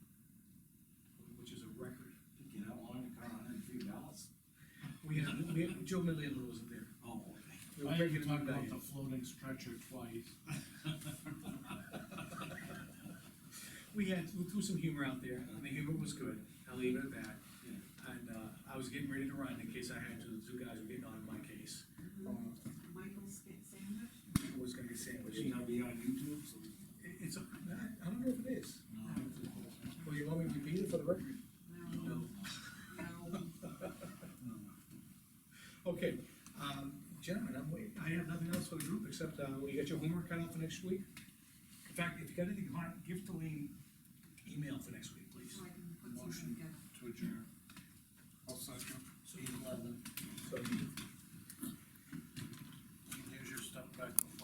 Joe Millian wasn't there. Oh, okay. We were I had to breaking it talk up, about Diane. the floating stretcher twice. We had, we threw some humor out there, and the humor was good, I'll leave it at that. And, uh, I was getting ready to run in case I had to, the two guys were getting on my case, Michael Sca- Sanders? It was gonna be sandwiched. Should It- that be on YouTube, so? It's, I don't know if it is. No. Well, you want me to repeat it for the record? No, no. Okay, um, gentlemen, I'm waiting, I have nothing else for the group, except, uh, you got your homework cut out for next week? In fact, if you got anything hard, give to Lean email for next week, please. So I can put Motion. something together. To adjourn. I'll second. Eight eleven. um, So,